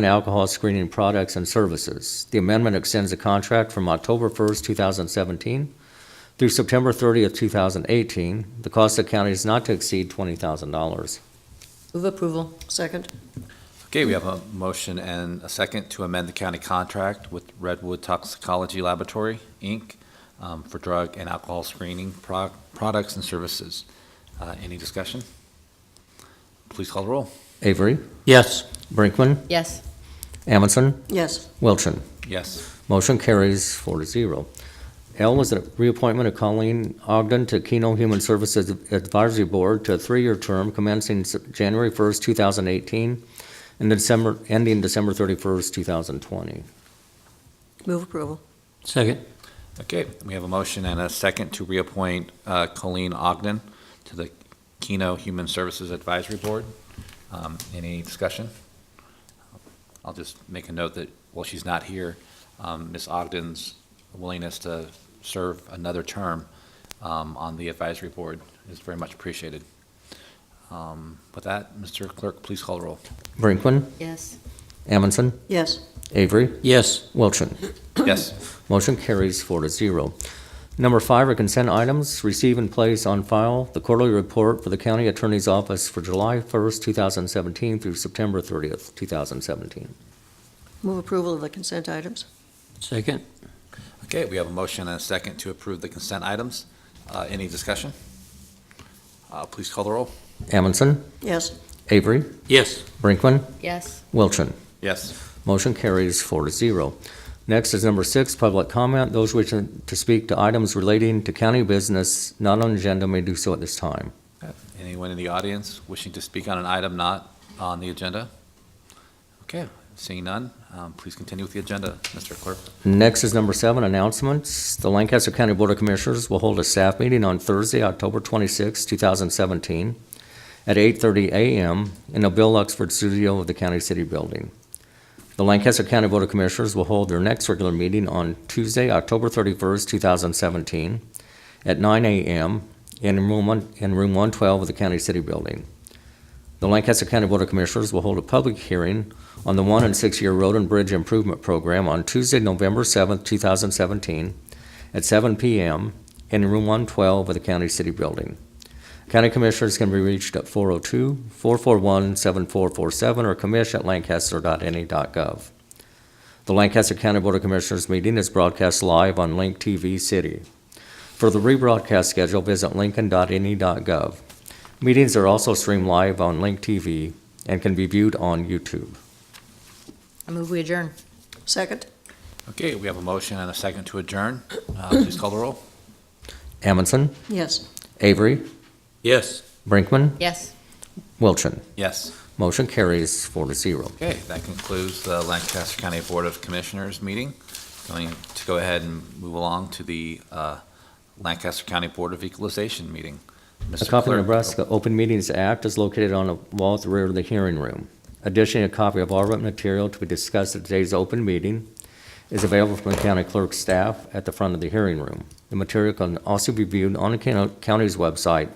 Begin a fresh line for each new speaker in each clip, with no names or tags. and alcohol screening products and services. The amendment extends the contract from October 1st, 2017 through September 30th, 2018. The cost of county is not to exceed $20,000.
Move approval. Second.
Okay, we have a motion and a second to amend the county contract with Redwood Toxicology Laboratory, Inc., um, for drug and alcohol screening pro- products and services. Uh, Any discussion? Please call the roll.
Avery,
Yes.
Brinkman,
Yes.
Amundson,
Yes.
Wilchin.
Yes.
Motion carries four to zero. L was a reappointment of Colleen Ogden to Keno Human Services Advisory Board to a three-year term commencing S- January 1st, 2018, and December, ending December 31st, 2020.
Move approval.
Second.
Okay, we have a motion and a second to reappoint uh, Colleen Ogden to the Keno Human Services Advisory Board. Um, Any discussion? I'll just make a note that while she's not here, um, Ms. Ogden's willingness to serve another term um, on the advisory board is very much appreciated. Um, With that, Mr. Clerk, please call the roll.
Brinkman,
Yes.
Amundson,
Yes.
Avery,
Yes.
Wilchin.
Yes.
Motion carries four to zero. Number five are consent items. Receive and place on file the quarterly report for the county attorney's office for July 1st, 2017 through September 30th, 2017.
Move approval of the consent items.
Second.
Okay, we have a motion and a second to approve the consent items. Uh, Any discussion? Uh, Please call the roll.
Amundson,
Yes.
Avery,
Yes.
Brinkman,
Yes.
Wilchin.
Yes.
Motion carries four to zero. Next is number six, public comment. Those wishing to speak to items relating to county business not on agenda may do so at this time.
Anyone in the audience wishing to speak on an item not on the agenda? Okay, seeing none, um, please continue with the agenda, Mr. Clerk.
Next is number seven, announcements. The Lancaster County Board of Commissioners will hold a staff meeting on Thursday, October 26, 2017, at 8:30 a.m. in the Bill Luxford Studio of the County City Building. The Lancaster County Board of Commissioners will hold their next regular meeting on Tuesday, October 31, 2017, at 9 a.m. in Room one- in Room 112 of the County City Building. The Lancaster County Board of Commissioners will hold a public hearing on the one and six-year road and bridge improvement program on Tuesday, November 7th, 2017, at 7 p.m. in Room 112 of the County City Building. County Commissioners can be reached at 402-441-7447 or commish@lancaster.ne.gov. E The Lancaster County Board of Commissioners meeting is broadcast live on Link TV City. For the rebroadcast schedule, visit lincoln.ne.gov. E Meetings are also streamed live on Link TV and can be viewed on YouTube.
I move we adjourn. Second.
Okay, we have a motion and a second to adjourn. Uh, Please call the roll.
Amundson,
Yes.
Avery,
Yes.
Brinkman,
Yes.
Wilchin.
Yes.
Motion carries four to zero.
Okay, that concludes the Lancaster County Board of Commissioners meeting. Going to go ahead and move along to the uh, Lancaster County Board of Equalization meeting.
A
Mr.
copy of
Clerk.
Nebraska Open Meetings Act is located on the wall at the rear of the hearing room. Additionally, a copy of all written material to be discussed at today's open meeting is available from the county clerk's staff at the front of the hearing room. The material can also be viewed on the county- county's website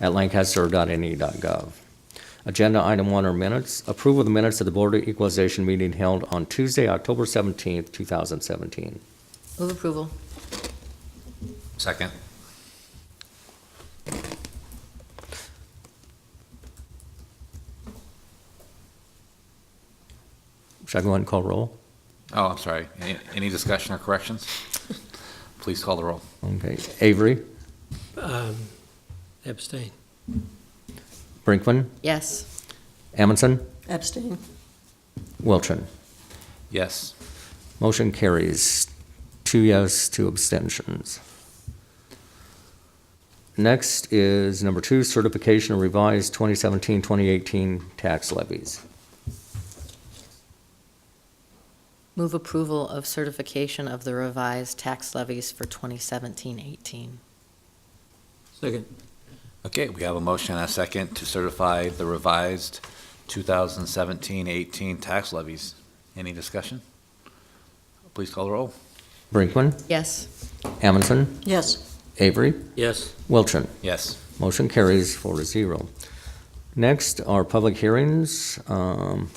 at lancaster.ne.gov. E Agenda item one are minutes. Approval of the minutes of the Board of Equalization meeting held on Tuesday, October 17th, 2017.
Move approval.
Second.
Should I go ahead and call roll?
Oh, I'm sorry. Any, any discussion or corrections? Please call the roll.
Okay. Avery,
Um, abstain.
Brinkman,
Yes.
Amundson,
Abstain.
Wilchin.
Yes.
Motion carries. Two yes, two abstentions. Next is number two, certification of revised 2017-2018 tax levies.
Move approval of certification of the revised tax levies for 2017-18.
Second.
Okay, we have a motion and a second to certify the revised 2017-18 tax levies. Any discussion? Please call the roll.
Brinkman,
Yes.
Amundson,
Yes.
Avery,
Yes.
Wilchin.
Yes.
Motion carries four to zero. Next are public hearings. Um,